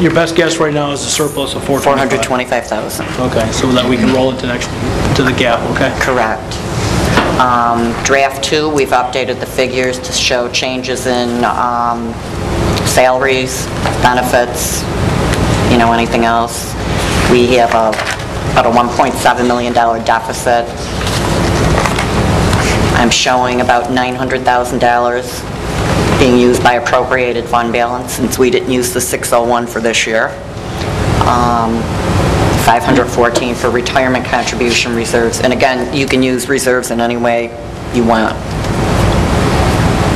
your best guess right now is a surplus of 425? 425,000. Okay, so that we can roll it to next, to the gap, okay? Correct. Um, Draft two, we've updated the figures to show changes in um, salaries, benefits, you know, anything else. We have a- about a $1.7 million deficit. I'm showing about $900,000 being used by appropriated fund balance, since we didn't use the 601 for this year. Um, 514 for retirement contribution reserves. And again, you can use reserves in any way you want.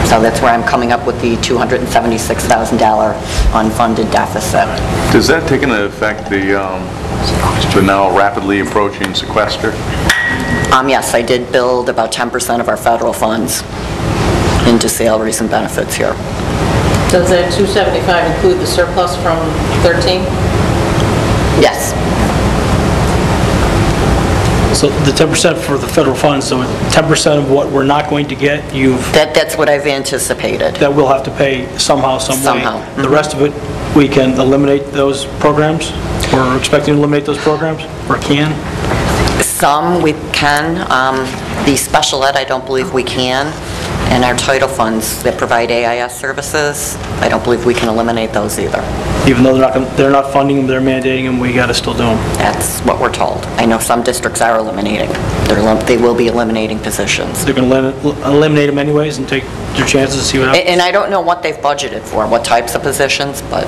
So that's where I'm coming up with the $276,000 unfunded deficit. Does that take into effect the, um, the now rapidly approaching sequester? Um, Yes, I did build about 10% of our federal funds into salaries and benefits here. Does that 275 include the surplus from 13? Yes, So the 10% for the federal funds, so 10% of what we're not going to get, you've, that that's what I've anticipated. that we'll have to pay somehow, some way. Somehow, The rest of it, we can eliminate those programs? We're expecting to eliminate those programs, or can? Some we can. Um, The special ed, I don't believe we can. And our title funds that provide AIS services, I don't believe we can eliminate those either. Even though they're not, gonna- they're not funding them, they're mandating them, we got to still do them. That's what we're told. I know some districts are eliminating. They're elim- They will be eliminating positions. They're going to eliminate them anyways and take their chances and see what A- happens? And I don't know what they've budgeted for, what types of positions, but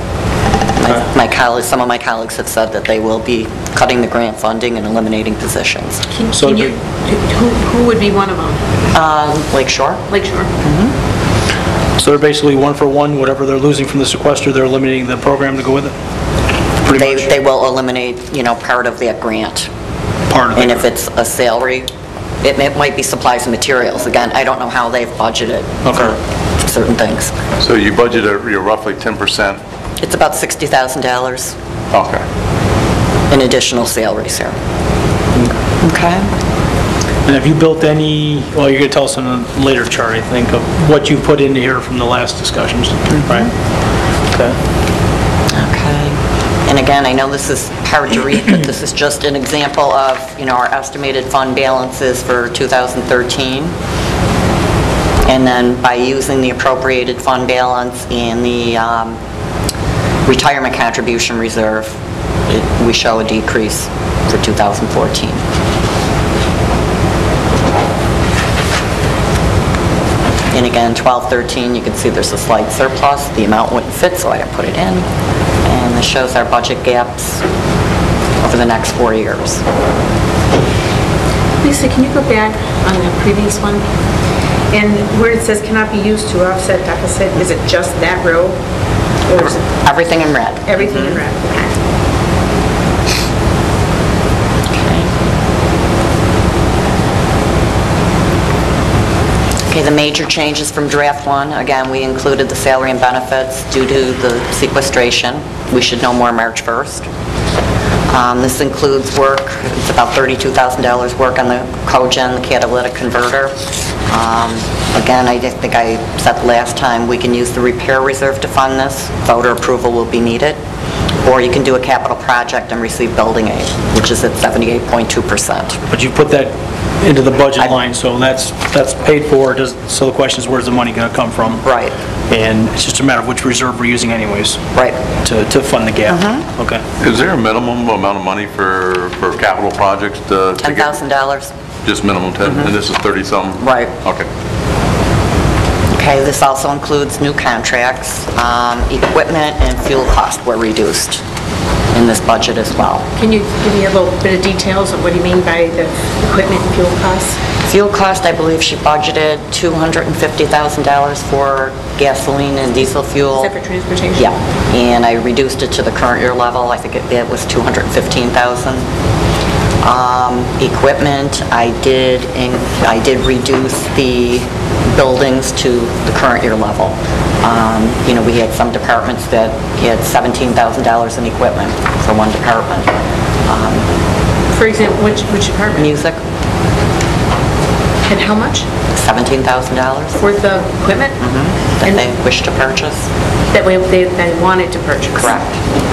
my- my colleagues, some of my colleagues have said that they will be cutting the grant funding and eliminating positions. Can So can you, it'd be- who who would be one of them? Lake Shore? Lake Shore? So they're basically one for one, whatever they're losing from the sequester, they're eliminating the program to go with it? They Pretty much They will eliminate, you know, part of that grant. part of it. And if it's a salary, it may- might be supplies and materials. Again, I don't know how they've budgeted for certain things. So you budget a- you're roughly 10%? It's about $60,000 Okay. in additional salaries here. Okay? And have you built any, well, you're going to tell us in a later chart, I think, of what you put into here from the last discussions, Mm-hmm. right? Okay. Okay. And again, I know this is hard to read, but this is just an example of, you know, our estimated fund balances for 2013. And then by using the appropriated fund balance and the um, retirement contribution reserve, it- we show a decrease for 2014. And again, 1213, you can see there's a slight surplus. The amount wouldn't fit, so I didn't put it in. And this shows our budget gaps over the next four years. Lisa, can you go back on the previous one? And where it says cannot be used to offset deficit, is it just that row? Or is it Everything in red. everything in red? Okay, the major changes from draft one, again, we included the salary and benefits due to the sequestration. We should know more March 1st. Um, This includes work, it's about $32,000 work on the cogen, the catalytic converter. Um, Again, I just think I said last time, we can use the repair reserve to fund this. Voter approval will be needed. Or you can do a capital project and receive building aid, which is at 78.2%. But you put that into the budget I- line, so that's, that's paid for, does, so the question is, where's the money going to come from? Right. And it's just a matter of which reserve we're using anyways. Right. Mm-hmm. To, to fund the gap. Okay. Is there a minimum amount of money for, for capital projects to? to get- $10,000? Just minimum 10, and this is 30-something? Right. Okay. Okay, this also includes new contracts, um, equipment and fuel cost were reduced in this budget as well. Can you give me a little bit of details of what you mean by the equipment and fuel costs? Fuel cost, I believe she budgeted $250,000 for gasoline and diesel fuel. Except for transportation? Yeah, and I reduced it to the current year level, I think it it was 215,000. Um, Equipment, I did, in- I did reduce the buildings to the current year level. Um, You know, we had some departments that had $17,000 in equipment for one department. Um, For example, which, which department? Music, And how much $17,000 for the equipment? Mm-hmm. that they wish to purchase. That way, they, they wanted to purchase? Correct.